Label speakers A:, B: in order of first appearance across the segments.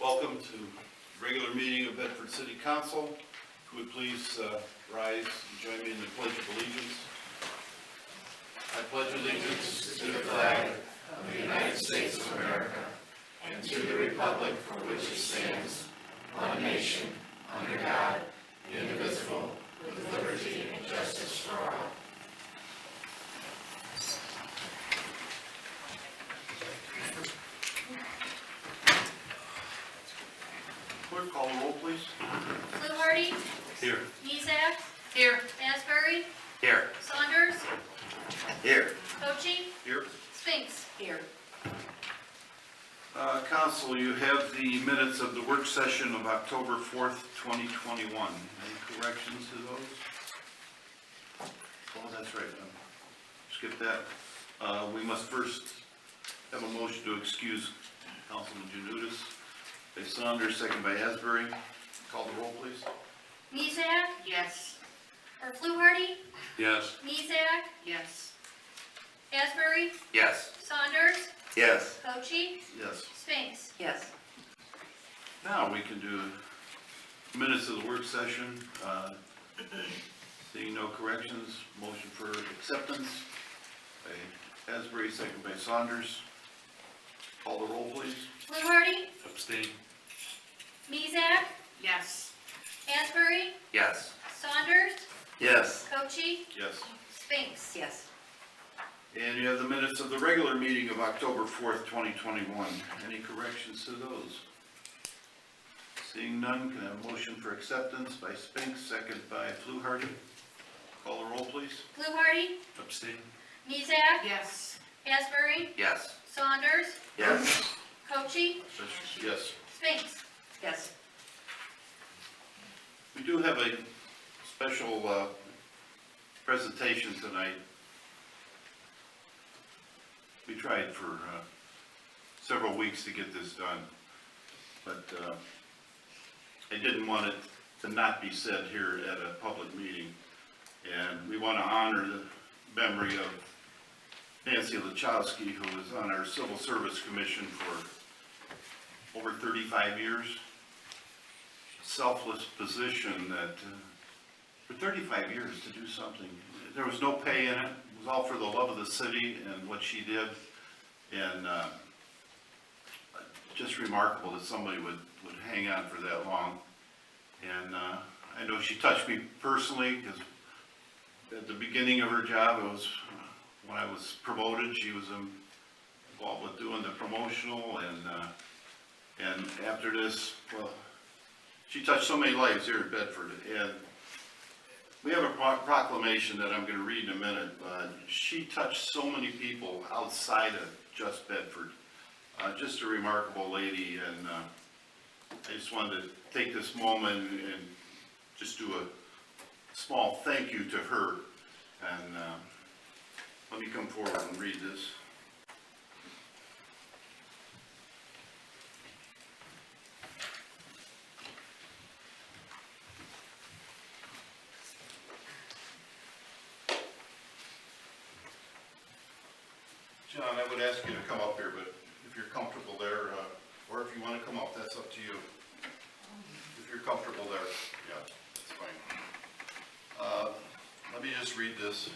A: Welcome to regular meeting of Bedford City Council. If you would please uh, rise and join me in the pledge of allegiance. I pledge allegiance to the flag Clerk, call the roll, please.
B: Fluharty?
A: Here.
B: Miesak? Here. Asbury?
A: Here.
B: Saunders?
A: Here.
B: Cochee?
A: Here.
B: Spinks? Here.
A: Uh, Council, you have the minutes of the work session of October 4th, 2021. Any corrections to those? Oh, that's right, no. skip that. Uh, We must first have a motion to excuse Councilman Janutus. By Saunders, second by Asbury. Call the roll, please.
B: Miesak?
C: Yes.
B: Or Fluharty?
A: Yes.
B: Miesak?
C: Yes.
B: Asbury?
A: Yes.
B: Saunders?
A: Yes.
B: Cochee?
A: Yes.
B: Spinks?
C: Yes.
A: Now we can do minutes of the work session. Uh, Seeing no corrections, motion for acceptance by Asbury, second by Saunders. Call the roll, please.
B: Fluharty?
A: Abstain.
B: Miesak?
C: Yes.
B: Asbury?
A: Yes.
B: Saunders?
A: Yes.
B: Cochee?
A: Yes.
B: Spinks?
C: Yes.
A: And you have the minutes of the regular meeting of October 4th, 2021. Any corrections to those? Seeing none, can I have a motion for acceptance by Spinks, second by Fluharty? Call the roll, please.
B: Fluharty?
A: Abstain.
B: Miesak?
C: Yes.
B: Asbury?
A: Yes.
B: Saunders?
A: Yes.
B: Cochee?
A: Yes.
B: Spinks?
C: Yes.
A: We do have a special uh, presentation tonight. We tried for uh, several weeks to get this done, but uh, I didn't want it to not be said here at a public meeting. And we want to honor the memory of Nancy Lachowski, who was on our Civil Service Commission for over 35 years selfless position that, uh, for 35 years to do something, there was no pay in it, it was all for the love of the city and what she did, and uh, just remarkable that somebody would, would hang on for that long. And uh, I know she touched me personally, because at the beginning of her job, it was, uh, when I was promoted, she was um, involved with doing the promotional, and, uh, and after this, well, she touched so many lives here in Bedford, and we have a pro- proclamation that I'm gonna read in a minute, but she touched so many people outside of just Bedford. Uh, just a remarkable lady, and, uh, I just wanted to take this moment and just do a small thank you to her, and, uh, let me come forward and read this. John, I would ask you to come up here, but if you're comfortable there, uh, or if you want to come up, that's up to you. If you're comfortable there, yeah, that's fine. Uh, Let me just read this.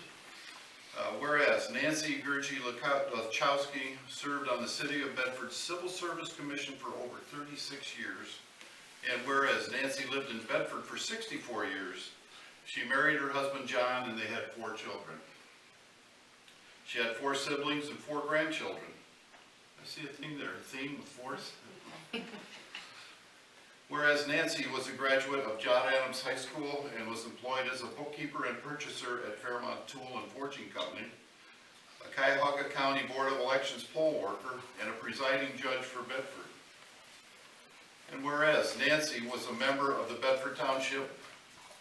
A: Uh, Whereas Nancy Gurje Lachowski served on the City of Bedford Civil Service Commission for over 36 years, and whereas Nancy lived in Bedford for 64 years, she married her husband John and they had four children. She had four siblings and four grandchildren. I see a theme there, a theme with fours. Whereas Nancy was a graduate of John Adams High School and was employed as a bookkeeper and purchaser at Fairmont Tool and Forging Company, a Cuyahoga County Board of Elections poll worker, and a presiding judge for Bedford. And whereas Nancy was a member of the Bedford Township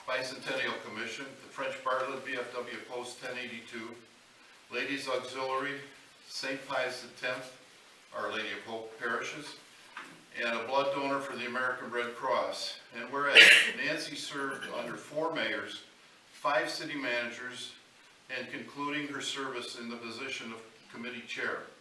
A: Bicentennial Commission, the French Bartlett BFW Post 1082, Ladies Auxiliary, St. Pius X, Our Lady of Hope Parishes, and a blood donor for the American Red Cross. And whereas Nancy served under four mayors, five city managers, and concluding her service in the position of committee chair.